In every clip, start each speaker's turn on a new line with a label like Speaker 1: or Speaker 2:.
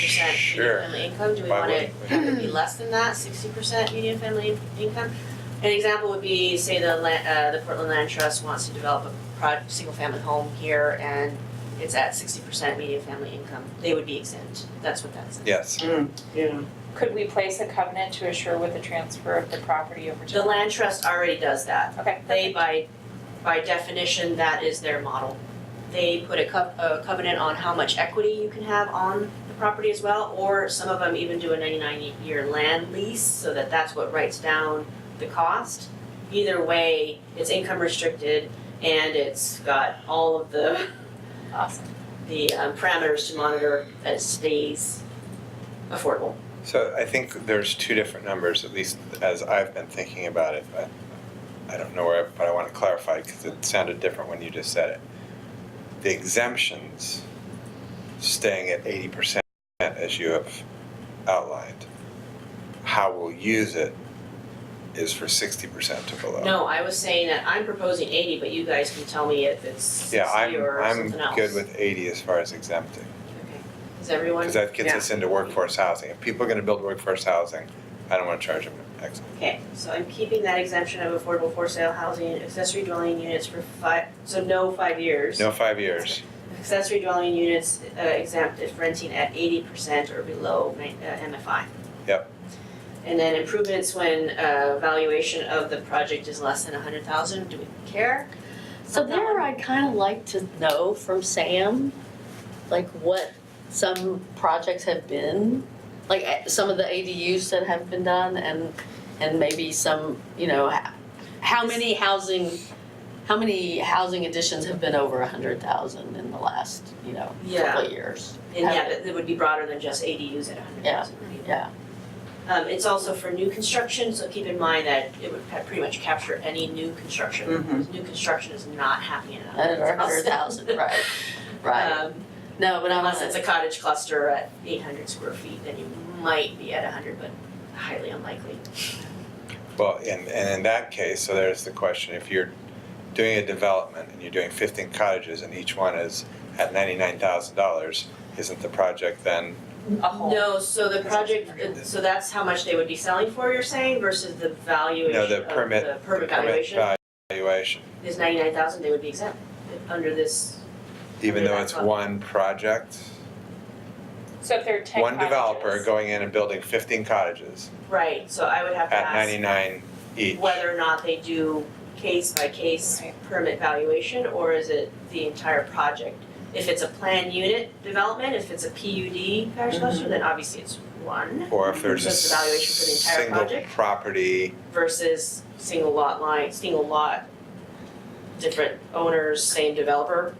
Speaker 1: percent
Speaker 2: Sure.
Speaker 1: median family income, do we
Speaker 2: Why
Speaker 1: want it,
Speaker 2: wouldn't we?
Speaker 1: have it be less than that, sixty percent median family income? An example would be, say the land, uh, the Portland Land Trust wants to develop a prod, single-family home here and it's at sixty percent median family income, they would be exempt, that's what that's.
Speaker 2: Yes,
Speaker 3: Yeah.
Speaker 4: Could we place a covenant to assure with the transfer of the property over to?
Speaker 1: The land trust already does that,
Speaker 4: Okay,
Speaker 1: they
Speaker 4: perfect.
Speaker 1: by, by definition, that is their model. They put a co- a covenant on how much equity you can have on the property as well, or some of them even do a ninety-nine year land lease, so that that's what writes down the cost. Either way, it's income restricted and it's got all of the,
Speaker 4: awesome.
Speaker 1: the um, parameters to monitor that it stays affordable.
Speaker 2: so I think there's two different numbers, at least as I've been thinking about it. I, I don't know where, but I want to clarify because it sounded different when you just said it. The exemptions staying at eighty percent as you have outlined. How we'll use it is for sixty percent to below.
Speaker 1: No, I was saying that I'm proposing eighty, but you guys can tell me if it's
Speaker 2: Yeah,
Speaker 1: sixty
Speaker 2: I'm,
Speaker 1: or
Speaker 2: I'm
Speaker 1: something else.
Speaker 2: good with eighty as far as exempting.
Speaker 1: Okay. Is everyone?
Speaker 2: Because that gets us into workforce housing. If people are gonna build workforce housing, I don't wanna charge them X.
Speaker 1: Okay, so I'm keeping that exemption of affordable for sale housing, accessory dwelling units for five, so no five years.
Speaker 2: No, five years.
Speaker 1: Accessory dwelling units uh, exempt if renting at eighty percent or below ni- uh, MFI.
Speaker 2: Yep.
Speaker 1: And then improvements when uh, valuation of the project is less than a hundred thousand, do we care?
Speaker 5: So there, I'd kind of like to know from Sam, like what some projects have been, like eh, some of the ADUs that have been done and, and maybe some, you know, ha- how many housing, how many housing additions have been over a hundred thousand in the last, you know, couple
Speaker 1: Yeah,
Speaker 5: of years?
Speaker 1: and yeah, that that would be broader than just ADUs at a hundred thousand.
Speaker 5: Yeah.
Speaker 1: Um, it's also for new construction, so keep in mind that it would pe- pretty much capture any new construction.
Speaker 5: Mm-hmm.
Speaker 3: Mhm.
Speaker 1: New construction is not happening at
Speaker 5: Over a hundred
Speaker 1: 100,000.
Speaker 5: thousand, right, right.
Speaker 1: Um,
Speaker 5: No, but I'm,
Speaker 1: unless it's a cottage cluster at eight hundred square feet, then you might be at hundred, but highly unlikely.
Speaker 2: Well, and, and in that case, so there's the question, if you're doing a development and you're doing fifteen cottages and each one is at ninety-nine thousand dollars, isn't the project then,
Speaker 4: A whole.
Speaker 1: No, so the project, so that's how much they would be selling for, you're saying, versus the valuation
Speaker 2: no,
Speaker 1: of
Speaker 2: the
Speaker 1: the
Speaker 2: permit, the
Speaker 1: permit
Speaker 2: permit
Speaker 1: valuation
Speaker 2: valuation?
Speaker 1: is ninety-nine thousand, they would be exempt under this,
Speaker 2: Even though
Speaker 1: Yeah,
Speaker 2: it's
Speaker 1: well-
Speaker 2: one project,
Speaker 4: So if there are ten
Speaker 2: one developer
Speaker 4: cottages-
Speaker 2: going in and building fifteen cottages
Speaker 1: right, so I would have to
Speaker 2: at
Speaker 1: ask
Speaker 2: ninety-nine each.
Speaker 1: whether or not they do case by case
Speaker 4: Right.
Speaker 1: permit valuation, or is it the entire project? If it's a planned unit development, if it's a PUD cottage
Speaker 6: Mm-hmm.
Speaker 1: cluster, then obviously it's one.
Speaker 2: Or if there's a
Speaker 1: Just evaluation for the entire
Speaker 2: single
Speaker 1: project?
Speaker 2: property
Speaker 1: versus single lot line, single lot, different owners, same developer.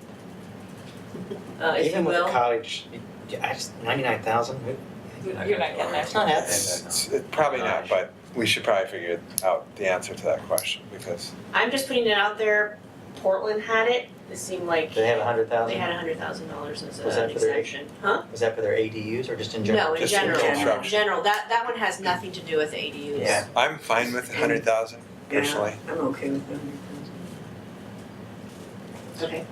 Speaker 1: Uh, if you
Speaker 6: Even with the
Speaker 1: will,
Speaker 6: cottage, I just, ninety-nine thousand,
Speaker 4: You're not getting there.
Speaker 6: it's not happening.
Speaker 2: It's it's probably not, but we should probably figure out the answer to that question because
Speaker 1: I'm just putting it out there, Portland had it, it seemed like
Speaker 6: Do they
Speaker 1: they
Speaker 6: have a hundred thousand?
Speaker 1: had a hundred thousand dollars as
Speaker 6: Was
Speaker 1: a-
Speaker 6: that
Speaker 1: an
Speaker 6: for their-
Speaker 1: exemption, huh?
Speaker 6: Was that for their ADUs or just in general?
Speaker 1: No, in
Speaker 2: Just in
Speaker 1: general,
Speaker 2: general.
Speaker 1: general, that, that one has nothing to do with ADUs.
Speaker 6: Yeah.
Speaker 2: I'm fine with a hundred thousand personally.
Speaker 3: I'm okay with that.
Speaker 1: Okay,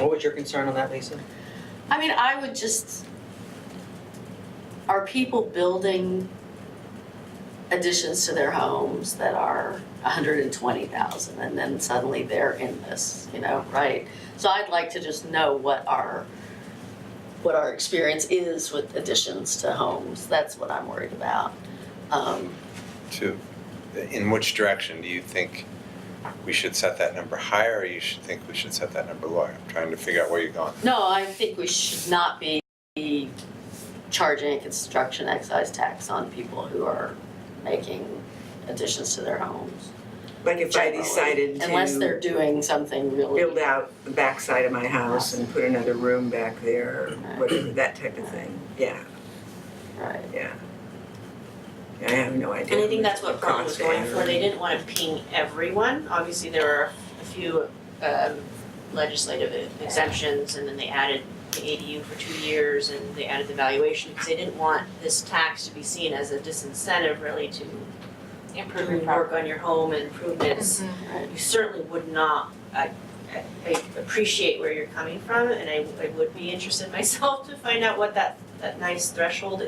Speaker 6: What was your concern on that, Lisa?
Speaker 5: I mean, I would just, are people building additions to their homes that are hundred and twenty thousand and then suddenly they're in this, you know, right? So I'd like to just know what our, what our experience is with additions to homes, that's what I'm worried about. Um,
Speaker 2: To, in which direction do you think we should set that number higher or you should think we should set that number lower? I'm trying to figure out where you're going.
Speaker 5: No, I think we should not be charging a construction excise tax on people who are making additions to their homes.
Speaker 3: Like if I
Speaker 5: generally,
Speaker 3: decided
Speaker 5: Unless
Speaker 3: to
Speaker 5: they're doing something really.
Speaker 3: build out the backside of my house and put another room back there, or whatever, that type of thing, yeah,
Speaker 5: Right,
Speaker 3: yeah. I have no idea.
Speaker 1: and I think
Speaker 3: how
Speaker 1: that's
Speaker 3: much
Speaker 1: what
Speaker 3: it
Speaker 1: Portland was
Speaker 3: costs
Speaker 1: going
Speaker 3: to
Speaker 1: for, they didn't wanna ping everyone, obviously there are a few, um, legislative exemptions, and then they added the ADU for two years, and they added the valuation, because they didn't want this tax to be seen as a disincentive really to
Speaker 4: Improve your
Speaker 1: do
Speaker 4: property. Mm-hmm,
Speaker 1: work on your home and improvements.
Speaker 5: right.
Speaker 1: You certainly would not, I, I- I appreciate where you're coming from, and I, I would be interested myself to find out what that, that nice threshold